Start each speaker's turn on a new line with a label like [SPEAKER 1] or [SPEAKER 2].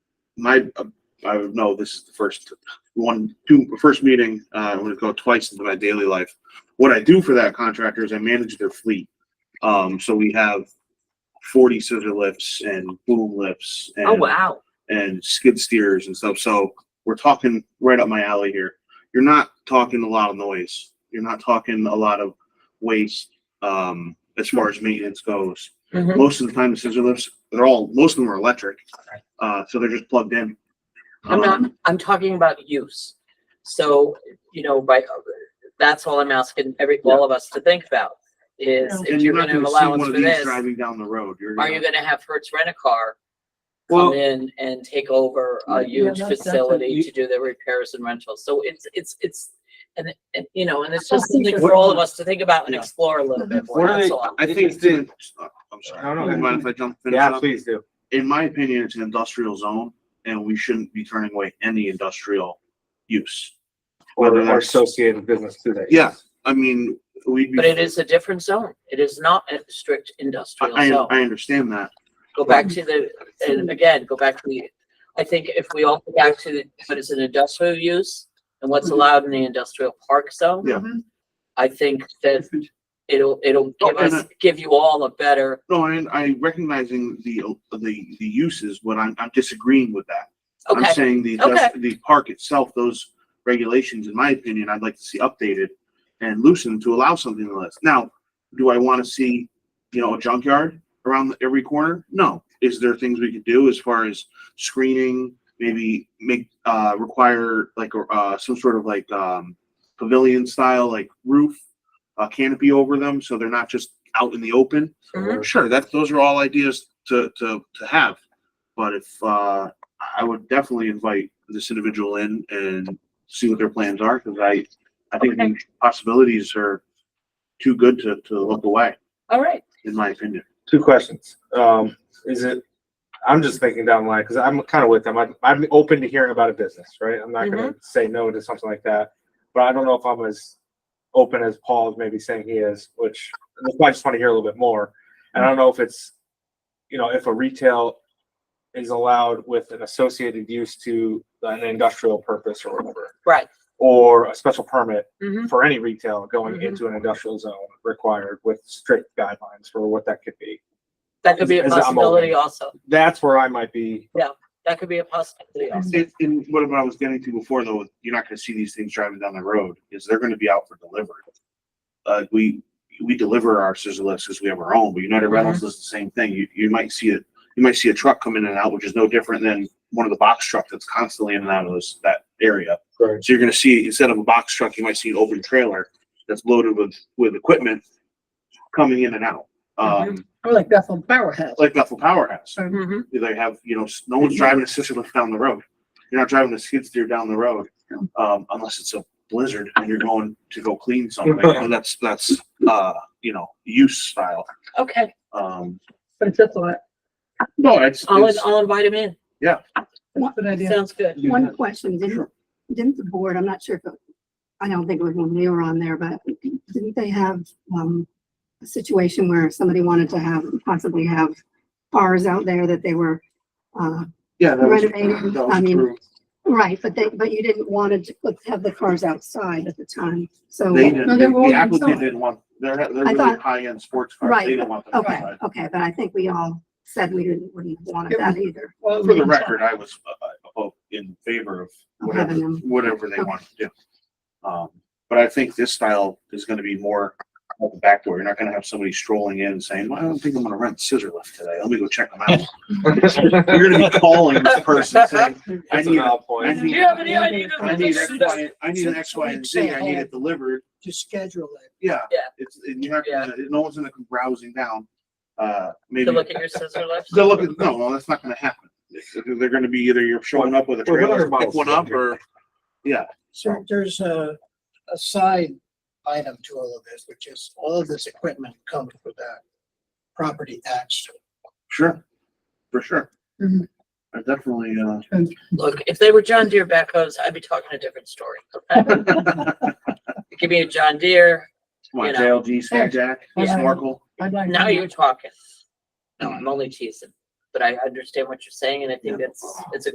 [SPEAKER 1] my, uh, I would know this is the first one, two, first meeting, uh, I'm gonna go twice into my daily life. What I do for that contractor is I manage their fleet. Um, so we have forty scissor lifts and boom lifts
[SPEAKER 2] Oh,
[SPEAKER 1] and,
[SPEAKER 2] wow.
[SPEAKER 1] and skid steers and stuff. So we're talking right up my alley here. You're not talking a lot of noise. You're not talking a lot of waste, um, as far as maintenance goes.
[SPEAKER 2] Mhm.
[SPEAKER 1] Most of the time, the scissor lifts, they're all, most of them are electric, uh, so they're just plugged in.
[SPEAKER 2] I'm not,
[SPEAKER 1] Um,
[SPEAKER 2] I'm talking about use. So, you know, by, that's all I'm asking every, all of us to think about is
[SPEAKER 1] And
[SPEAKER 2] if
[SPEAKER 1] you're
[SPEAKER 2] you're
[SPEAKER 1] not
[SPEAKER 2] gonna have
[SPEAKER 1] gonna see
[SPEAKER 2] allowance
[SPEAKER 1] one of
[SPEAKER 2] for
[SPEAKER 1] these
[SPEAKER 2] this,
[SPEAKER 1] driving down the road. You're
[SPEAKER 2] are you
[SPEAKER 1] gonna,
[SPEAKER 2] gonna have Hertz rent a car come
[SPEAKER 3] Well,
[SPEAKER 2] in and take over
[SPEAKER 3] Yeah,
[SPEAKER 2] a huge
[SPEAKER 3] that's- that's a-
[SPEAKER 2] facility
[SPEAKER 3] you-
[SPEAKER 2] to do the repairs and rentals? So it's, it's, it's, and, and, you know, and it's just
[SPEAKER 4] Well,
[SPEAKER 2] something
[SPEAKER 4] what-
[SPEAKER 2] for all of us to think about and
[SPEAKER 1] Yeah.
[SPEAKER 2] explore a little bit more,
[SPEAKER 3] What are
[SPEAKER 2] that's
[SPEAKER 3] they-
[SPEAKER 2] all.
[SPEAKER 1] I think, it's in- I'm sorry,
[SPEAKER 3] No, no,
[SPEAKER 1] Do you mind if I jump? finish
[SPEAKER 3] yeah,
[SPEAKER 1] up?
[SPEAKER 3] please do.
[SPEAKER 1] In my opinion, it's an industrial zone and we shouldn't be turning away any industrial use.
[SPEAKER 3] Or,
[SPEAKER 1] Whether
[SPEAKER 3] or
[SPEAKER 1] that's-
[SPEAKER 3] associated business today.
[SPEAKER 1] Yeah, I mean, we'd be.
[SPEAKER 2] But it is a different zone. It is not a strict
[SPEAKER 1] I,
[SPEAKER 2] industrial
[SPEAKER 1] I
[SPEAKER 2] zone.
[SPEAKER 1] I understand that.
[SPEAKER 2] go back to the, and again, go back to the, I think if we all go back to the, what is an industrial use and what's
[SPEAKER 4] Mhm.
[SPEAKER 2] allowed in the industrial park zone.
[SPEAKER 1] Mm-hmm. Yeah.
[SPEAKER 2] I think that it'll, it'll
[SPEAKER 1] Oh,
[SPEAKER 2] give
[SPEAKER 1] and
[SPEAKER 2] us, give you all a better,
[SPEAKER 1] No, I, I recognizing the, the, the uses, but I'm, I'm disagreeing with that. I'm
[SPEAKER 2] okay,
[SPEAKER 1] saying the,
[SPEAKER 2] Okay.
[SPEAKER 1] the park itself, those regulations, in my opinion, I'd like to see updated and loosened to allow something like this. Now, do I want to see, you know, a junkyard around every corner? No. Is there things we could do as far as screening, maybe make, uh, require like, uh, some sort of like, um, pavilion style, like roof, uh, canopy over them, so they're not just out in the open?
[SPEAKER 3] Mm-hmm.
[SPEAKER 2] Mhm.
[SPEAKER 1] Sure, that, those are all ideas to, to, to have. But if, uh, I would definitely invite this individual in and see what their plans are, because I, I think the possibilities are too good to, to look away,
[SPEAKER 2] all right.
[SPEAKER 1] in my opinion.
[SPEAKER 3] Two questions. Um, is it, I'm just thinking down the line, cause I'm kind of with them. I'm, I'm open to hearing about a business, right? I'm not gonna say no to something like that. But I don't know if I'm as open as Paul is maybe saying he is, which that's why I just want to hear a little bit more. And I don't know if it's, you know, if a retail is allowed with an associated use to an industrial purpose or whatever.
[SPEAKER 2] Right.
[SPEAKER 3] Or a special permit
[SPEAKER 2] Mhm.
[SPEAKER 3] for any retail going
[SPEAKER 2] Mhm.
[SPEAKER 3] into an industrial zone required with strict guidelines for what that could be.
[SPEAKER 2] That could be a
[SPEAKER 3] Is- is that
[SPEAKER 2] possibility also.
[SPEAKER 3] That's where I might be.
[SPEAKER 2] That could be a possibility also.
[SPEAKER 1] And, and what I was getting to before, though, you're not gonna see these things driving down the road, is they're gonna be out for delivery. Uh, we, we deliver our scissor lifts because we have our own, but United Rentals does the same thing. You, you might see it, you might see a truck come in and out, which is no different than one of the box trucks that's constantly in and out of this, that area.
[SPEAKER 3] Right.
[SPEAKER 1] So you're gonna see, instead of a box truck, you might see an open trailer that's loaded with, with equipment coming in and out. Um,
[SPEAKER 4] Or like Bethel Power has.
[SPEAKER 1] like Bethel Power has.
[SPEAKER 2] Mhm.
[SPEAKER 1] They have, you know, s- no one's driving a scissor lift down the road. You're not driving a skid steer down the road, um, unless it's a blizzard and you're going to go clean something. And that's, that's, uh, you know, use style.
[SPEAKER 2] Okay,
[SPEAKER 1] Um,
[SPEAKER 4] But it's just a,
[SPEAKER 1] no, it's,
[SPEAKER 2] I'll,
[SPEAKER 1] it's,
[SPEAKER 2] I'll invite him in.
[SPEAKER 4] that's an idea.
[SPEAKER 2] Sounds good.
[SPEAKER 5] One question, didn't, didn't the board, I'm not sure if, it- I don't think it was when we were on there, but didn't they have, um, a situation where somebody wanted to have, possibly have cars out there that they were, uh,
[SPEAKER 1] yeah, that was,
[SPEAKER 5] renovating,
[SPEAKER 1] that
[SPEAKER 5] I
[SPEAKER 1] was
[SPEAKER 5] mean-
[SPEAKER 1] true.
[SPEAKER 5] right, but they, but you didn't want to put- have the cars outside at the time, so.
[SPEAKER 1] They didn't,
[SPEAKER 4] No, they were
[SPEAKER 1] the
[SPEAKER 4] all
[SPEAKER 1] applicant
[SPEAKER 4] inside.
[SPEAKER 1] didn't want, they're, they're
[SPEAKER 5] I
[SPEAKER 1] really
[SPEAKER 5] thought-
[SPEAKER 1] high-end sports cars.
[SPEAKER 5] Right,
[SPEAKER 1] They didn't want them
[SPEAKER 5] Okay,
[SPEAKER 1] outside.
[SPEAKER 5] okay, but I think we all said we didn't, wouldn't have wanted that either,
[SPEAKER 4] Well,
[SPEAKER 1] For the record, I was, uh, uh, oh, in favor of
[SPEAKER 5] of having
[SPEAKER 1] whatever,
[SPEAKER 5] them.
[SPEAKER 1] whatever they
[SPEAKER 5] Okay.
[SPEAKER 1] want to do. Um, but I think this style is gonna be more at the back door. You're not gonna have somebody strolling in and saying, well, I don't think I'm gonna rent scissor lift today. Let me go check them out. You're gonna be calling this person saying, I
[SPEAKER 3] That's a
[SPEAKER 1] need,
[SPEAKER 3] valid
[SPEAKER 1] I
[SPEAKER 3] point.
[SPEAKER 1] need,
[SPEAKER 2] have any idea
[SPEAKER 1] I need X, Y, I need an X, Y, and Z. I need it delivered.
[SPEAKER 4] To schedule it.
[SPEAKER 1] Yeah.
[SPEAKER 2] Yeah.
[SPEAKER 1] It's, and you're not, gonna- no one's gonna come browsing down. Uh, maybe.
[SPEAKER 2] To look at your scissor lifts.
[SPEAKER 1] They'll look at, no, well, that's not gonna happen. They're gonna be either you're showing up with a
[SPEAKER 3] Well, what
[SPEAKER 1] trailer,
[SPEAKER 3] other
[SPEAKER 1] pick
[SPEAKER 3] models
[SPEAKER 1] one
[SPEAKER 3] do you
[SPEAKER 1] up,
[SPEAKER 3] have?
[SPEAKER 1] or, yeah.
[SPEAKER 4] So there's a, a side item to all of this, which is all of this equipment comes with that property tax.
[SPEAKER 1] Sure, for sure.
[SPEAKER 4] Mhm.
[SPEAKER 1] I definitely, uh,
[SPEAKER 2] Look, if they were John Deere backhoes, I'd be talking a different story. okay? Give me a John Deere,
[SPEAKER 1] my
[SPEAKER 2] You know.
[SPEAKER 1] JLG, Sky Jack,
[SPEAKER 4] Yeah.
[SPEAKER 1] Snorkel.
[SPEAKER 4] I'd like. to
[SPEAKER 2] Now
[SPEAKER 4] know.
[SPEAKER 2] you're talking. No, I'm only teasing, but I understand what you're saying and I think that's, it's a